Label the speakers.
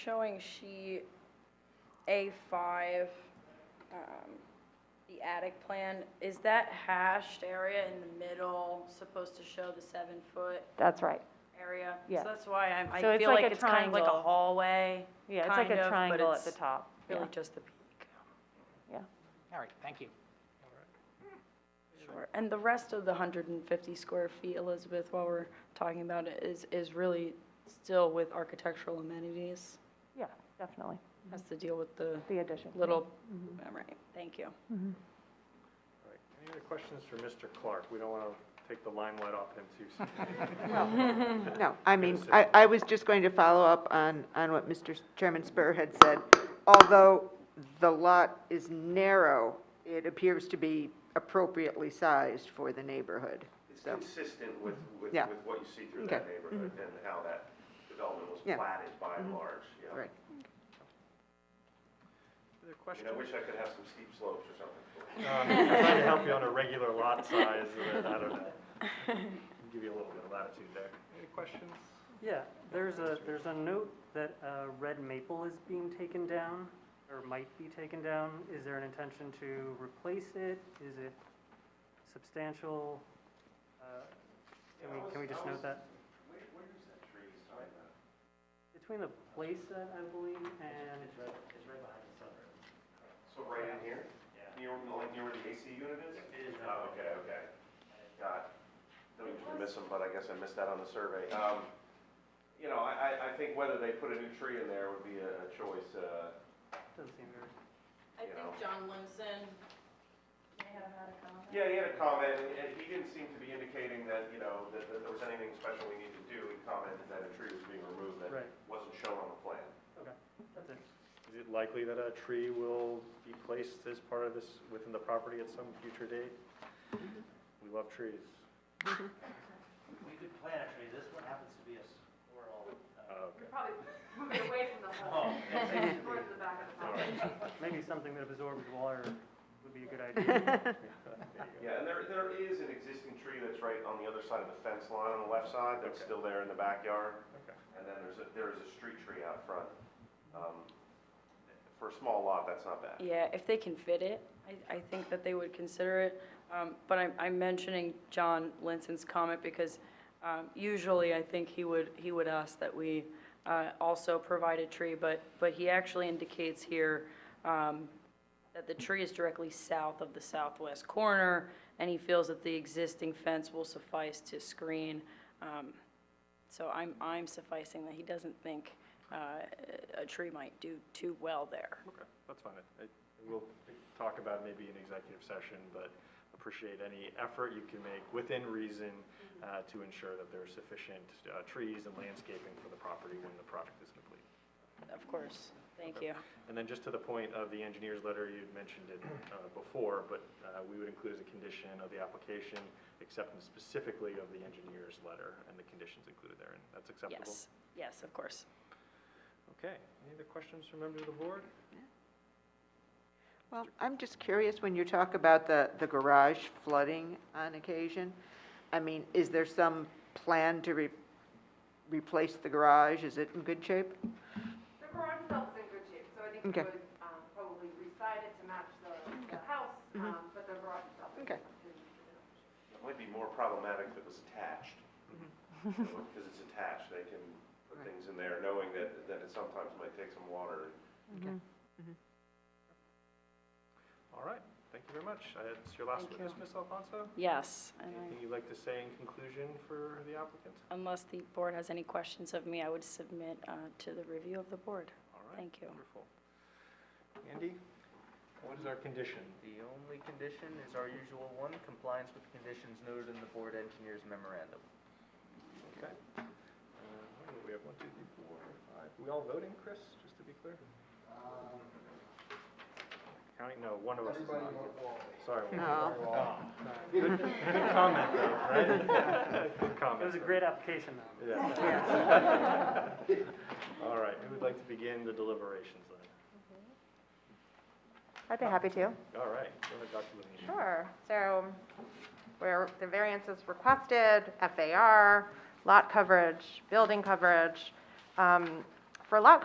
Speaker 1: Showing sheet A5, um, the attic plan, is that hashed area in the middle supposed to show the seven-foot
Speaker 2: That's right.
Speaker 1: area?
Speaker 2: Yeah.
Speaker 1: So that's why I'm,
Speaker 2: So
Speaker 1: I
Speaker 2: it's
Speaker 1: feel
Speaker 2: like
Speaker 1: like
Speaker 2: a
Speaker 1: it's kind of like a
Speaker 2: triangle.
Speaker 1: hallway,
Speaker 2: Yeah, it's like
Speaker 1: Kind of,
Speaker 2: a
Speaker 1: but
Speaker 2: triangle at the
Speaker 1: it's
Speaker 2: top.
Speaker 1: really
Speaker 2: Yeah.
Speaker 1: just the peak.
Speaker 3: All right, thank you.
Speaker 1: Sure. And the rest of the 150 square feet, Elizabeth, while we're talking about it, is, is really still with architectural amenities?
Speaker 2: Yeah, definitely,
Speaker 1: Has to deal with the
Speaker 2: the addition. yeah.
Speaker 1: little,
Speaker 2: Mm-hmm.
Speaker 1: all right, thank you.
Speaker 4: All right, Any other questions for Mr. Clark? We don't want to take the limelight off him too soon.
Speaker 5: No, I mean,
Speaker 4: Yes,
Speaker 5: I, I was just going to follow up on, on what Mr. Chairman Spur had said. Although the lot is narrow, it appears to be appropriately sized for the neighborhood.
Speaker 6: It's
Speaker 5: So,
Speaker 6: consistent with, with,
Speaker 5: Yeah.
Speaker 6: with what you see through
Speaker 5: Okay. Mm-hmm.
Speaker 6: that neighborhood and how that development was
Speaker 5: Yeah. Mm-hmm.
Speaker 6: platted by and large, yeah.
Speaker 5: right.
Speaker 3: Other
Speaker 6: I mean, I wish I could have some steep slopes or something. for you.
Speaker 4: Um, Trying to help you on a regular lot size, and I don't know. Give you a little bit of latitude there. Any questions?
Speaker 7: Yeah, there's a, there's a note that uh, red maple is being taken down, or might be taken down. Is there an intention to replace it? Is it substantial? Uh, Can we, can we just note that?
Speaker 6: Where, where is that tree? Sorry about it.
Speaker 7: Between the playset, I believe, and. It's right, it's right behind the sunroom.
Speaker 6: So right in here? Yeah. Near, like near where the AC unit is? It is. Oh, okay, okay. God, don't usually miss them, but I guess I missed that on the survey. Um, you know, I, I, I think whether they put a new tree in there would be a, a choice, uh,
Speaker 7: Doesn't seem very.
Speaker 1: I
Speaker 6: You know.
Speaker 1: think John Limson may have had a comment.
Speaker 6: Yeah, he had a comment, and- and he didn't seem to be indicating that, you know, that, that there was anything special we needed to do. He commented that a tree was being removed that
Speaker 7: Right.
Speaker 6: wasn't shown on the plan.
Speaker 7: Okay, that's it.
Speaker 4: Is it likely that a tree will be placed as part of this, within the property at some future date? We love trees.
Speaker 8: We could plant a tree, this one happens to be a squirrel. uh,
Speaker 4: Uh, okay.
Speaker 9: probably move it away from the
Speaker 8: Oh,
Speaker 9: hole,
Speaker 8: that's it.
Speaker 9: towards the back of the
Speaker 4: All
Speaker 9: house.
Speaker 4: right.
Speaker 7: Maybe something that absorbs water would be a good idea.
Speaker 6: Yeah, and there, there is an existing tree that's right on the other side of the fence line on the left side that's
Speaker 4: Okay.
Speaker 6: still there in the backyard.
Speaker 4: Okay.
Speaker 6: And then there's a, there is a street tree out front. Um, For a small lot, that's not bad.
Speaker 1: Yeah, if they can fit it, I, I think that they would consider it. Um, But I'm, I'm mentioning John Linson's comment because um, usually I think he would, he would ask that we uh, also provide a tree, but, but he actually indicates here um, that the tree is directly south of the southwest corner, and he feels that the existing fence will suffice to screen. Um, So I'm, I'm sufficing that he doesn't think uh, a tree might do too well there.
Speaker 4: Okay, that's fine. I- I- We'll talk about maybe an executive session, but appreciate any effort you can make within reason uh, to ensure that there are sufficient uh, trees and landscaping for the property when the project is complete.
Speaker 1: Of course, thank you.
Speaker 4: And then just to the point of the engineer's letter, you'd mentioned it uh, before, but uh, we would include as a condition of the application, acceptance specifically of the engineer's letter and the conditions included therein. That's acceptable?
Speaker 1: Yes, yes, of course.
Speaker 4: Okay. Any other questions from members of the board?
Speaker 5: Well, I'm just curious, when you talk about the, the garage flooding on occasion, I mean, is there some plan to re, replace the garage? Is it in good shape?
Speaker 9: The garage itself is in good shape, so I think we
Speaker 5: Okay.
Speaker 9: would um, probably reside it to match the the house,
Speaker 2: Mm-hmm.
Speaker 9: um, but the garage itself is
Speaker 5: Okay.
Speaker 9: is in good shape.
Speaker 6: It might be more problematic if it was attached. Because it's attached, they can put
Speaker 5: Right.
Speaker 6: things in there, knowing that, that it sometimes might take some water.
Speaker 4: All right. Thank you very much. Uh, It's your last
Speaker 1: Thank
Speaker 4: witness, Ms. Alfonso?
Speaker 1: Yes, and I-
Speaker 4: Anything you'd like to say in conclusion for the applicant?
Speaker 1: unless the board has any questions of me, I would submit uh, to the review of the board.
Speaker 4: All right.
Speaker 1: Thank you.
Speaker 4: Wonderful. Andy, what is our condition?
Speaker 8: The only condition is our usual one, compliance with the conditions noted in the board engineer's memorandum.
Speaker 4: Okay. Uh, what do We have one, two, three, four, five. We all voting, Chris, just to be clear? Counting, no, one of us is not. Sorry. one of
Speaker 1: Oh.
Speaker 4: us. Good good comment, though, right? Good comment.
Speaker 7: It was a great application, though.
Speaker 4: Yeah. All right, who would like to begin the deliberations then?
Speaker 2: I'd be happy to.
Speaker 4: All right, go ahead, Dr. Levine.
Speaker 10: Sure, so where the variance is requested, FAR, lot coverage, building coverage. Um, For lot